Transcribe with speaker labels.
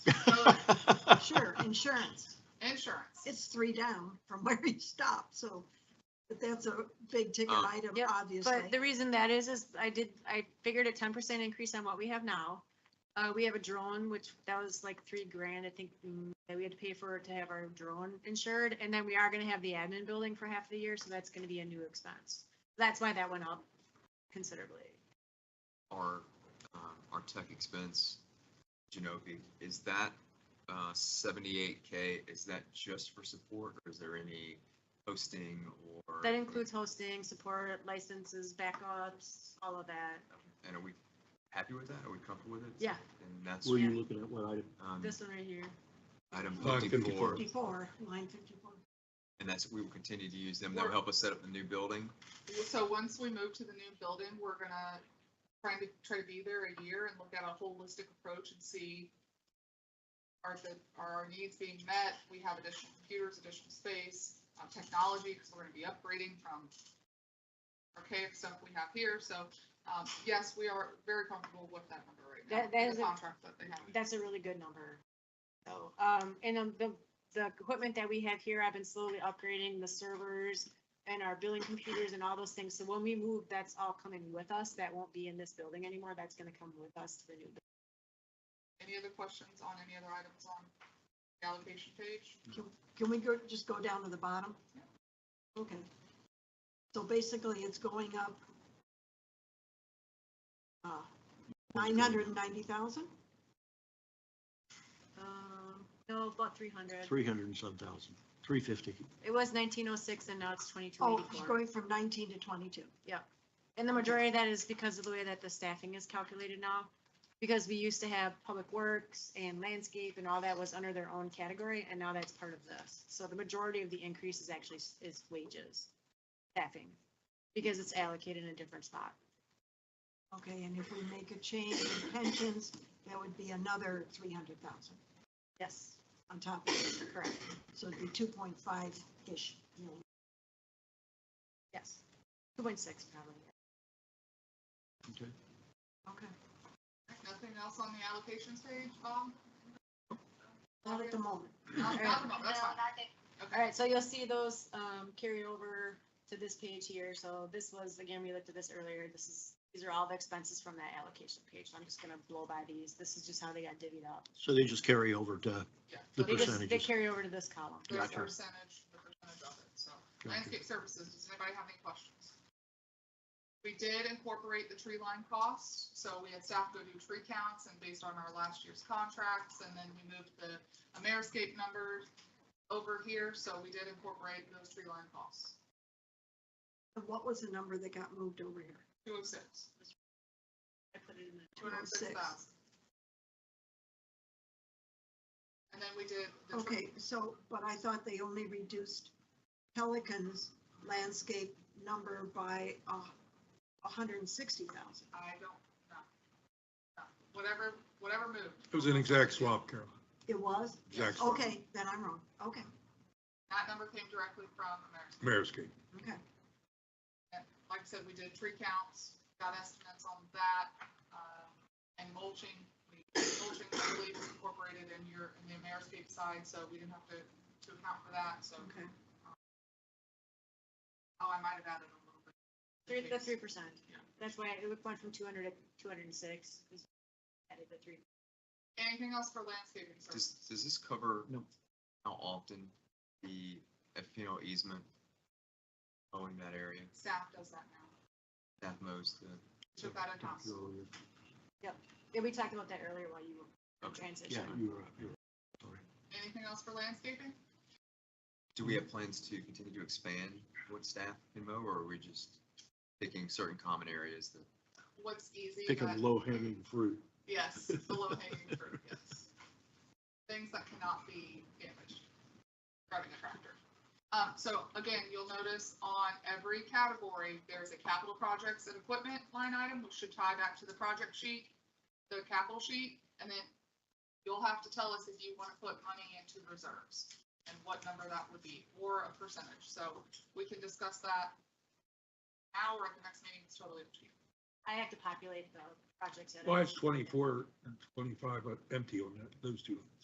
Speaker 1: insurance.
Speaker 2: insurance.
Speaker 1: It's three down from where he stopped, so, but that's a big ticket
Speaker 3: Uh,
Speaker 1: item,
Speaker 4: Yep,
Speaker 1: obviously.
Speaker 4: But the reason that is, is I did, I figured a ten percent increase on what we have now. Uh, we have a drone, which that was like three grand, I think, mm, that we had to pay for to have our drone insured. And then we are gonna have the admin building for half the year, so that's gonna be a new expense. That's why that went up considerably.
Speaker 3: our, um, our tech expense, Genovi, is that, uh, seventy-eight K, is that just for support or is there any hosting or?
Speaker 4: That includes hosting, support, licenses, backups, all of that.
Speaker 3: And are we happy with that? Are we comfortable with it?
Speaker 4: Yeah.
Speaker 3: And that's,
Speaker 5: Were you looking at what item?
Speaker 3: um,
Speaker 4: This one right here.
Speaker 3: item
Speaker 5: Uh,
Speaker 3: fifty-four,
Speaker 5: 54.
Speaker 1: Fifty-four, line fifty-four.
Speaker 3: and that's, we will continue to use them. They'll help us set up the new building.
Speaker 2: So once we move to the new building, we're gonna try to, try to be there a year and look at a holistic approach and see are the, are our needs being met? We have additional computers, additional space, uh, technology, because we're gonna be upgrading from archaic stuff we have here. So, um, yes, we are very comfortable with that number right now.
Speaker 4: That- that
Speaker 2: the
Speaker 4: is a-
Speaker 2: Contract that they have.
Speaker 4: That's a really good number. So, um, and um, the, the equipment that we have here, I've been slowly upgrading the servers and our billing computers and all those things. So when we move, that's all coming with us. That won't be in this building anymore. That's gonna come with us to the new. building.
Speaker 2: Any other questions on any other items on the allocation page?
Speaker 1: Can we go, just go down to the bottom? Okay. So basically, it's going up uh, nine hundred and ninety thousand?
Speaker 4: Um, no, about three hundred.
Speaker 5: Three hundred and some thousand, three fifty.
Speaker 4: It was nineteen oh six and now it's twenty-two
Speaker 1: Oh, it's
Speaker 4: eighty-four.
Speaker 1: going from nineteen to twenty-two.
Speaker 4: And the majority of that is because of the way that the staffing is calculated now. Because we used to have public works and landscape and all that was under their own category, and now that's part of this. So the majority of the increase is actually s- is wages, staffing, because it's allocated in a different spot.
Speaker 1: Okay, and if we make a change in pensions, that would be another three hundred thousand
Speaker 4: Yes,
Speaker 1: on top of it.
Speaker 4: correct,
Speaker 1: So it'd be two point five-ish.
Speaker 4: yes. Two point six probably.
Speaker 1: Okay.
Speaker 2: Nothing else on the allocations page, Bob?
Speaker 1: Not at the moment.
Speaker 2: Not- not about- that's fine.
Speaker 4: All right, so you'll see those um, carry over to this page here. So this was, again, we looked at this earlier. This is, these are all the expenses from that allocation page. So I'm just gonna blow by these. This is just how they got divvied up.
Speaker 5: So they just carry over to,
Speaker 2: Yeah.
Speaker 5: The
Speaker 4: They just, they
Speaker 5: percentages.
Speaker 4: carry over to this column.
Speaker 2: The
Speaker 5: Gotcha.
Speaker 2: percentage, the percentage of it, so.
Speaker 5: gotcha.
Speaker 2: Landscape services, does anybody have any questions? We did incorporate the tree line costs, so we had staff go do tree counts and based on our last year's contracts, and then we moved the Ameriscape numbers over here, so we did incorporate those tree line costs,
Speaker 1: And What was the number that got moved over here?
Speaker 2: two oh six,
Speaker 4: I put it in the-
Speaker 2: two hundred six thousand. And then we did the tree
Speaker 1: Okay, so, but I thought they only reduced Pelican's landscape number by a hundred and sixty thousand.
Speaker 2: I don't know. No. Whatever, whatever moved.
Speaker 6: It was an exact swap, Carol.
Speaker 1: It was?
Speaker 6: Exact swap.
Speaker 1: Okay, then I'm wrong. Okay,
Speaker 2: Oh, That number came directly from American.
Speaker 6: Mayor's Gate.
Speaker 1: okay.
Speaker 2: Like I said, we did tree counts, got estimates on that, um, and mulching. We- Mulching, I believe, was incorporated in your, in the Ameriscape side, so we didn't have to, to account for that, so,
Speaker 1: Okay.
Speaker 2: oh, I might have added a little bit.
Speaker 4: Three, the three percent.
Speaker 2: Yeah.
Speaker 4: That's why it went from two hundred to two hundred and six. Added the three.
Speaker 2: Anything else for landscaping
Speaker 3: Does,
Speaker 2: services?
Speaker 3: does this cover?
Speaker 5: No.
Speaker 3: How often the FPL easement owing that area,
Speaker 2: Staff does that now.
Speaker 3: that mows the
Speaker 2: Took that in house.
Speaker 4: Yeah, we talked about that earlier while you were
Speaker 3: Okay.
Speaker 5: Yeah,
Speaker 4: transitioning.
Speaker 5: you were, you were, sorry.
Speaker 2: Anything else for landscaping?
Speaker 3: Do we have plans to continue to expand what staff can mow, or are we just picking certain common areas that?
Speaker 2: What's easy?
Speaker 5: Pick
Speaker 2: but-
Speaker 5: a low hanging fruit.
Speaker 2: Yes, the low hanging fruit, yes. Things that cannot be damaged driving a tractor. Um, so again, you'll notice on every category, there's a capital projects and equipment line item, which should tie back to the project sheet, the capital sheet, and then you'll have to tell us if you want to put money into reserves and what number that would be, or a percentage. So we can discuss that now or at the next meeting, it's totally up to you.
Speaker 4: I have to populate the projects. that I-
Speaker 6: Well, it's twenty-four and twenty-five, but empty on that, those two.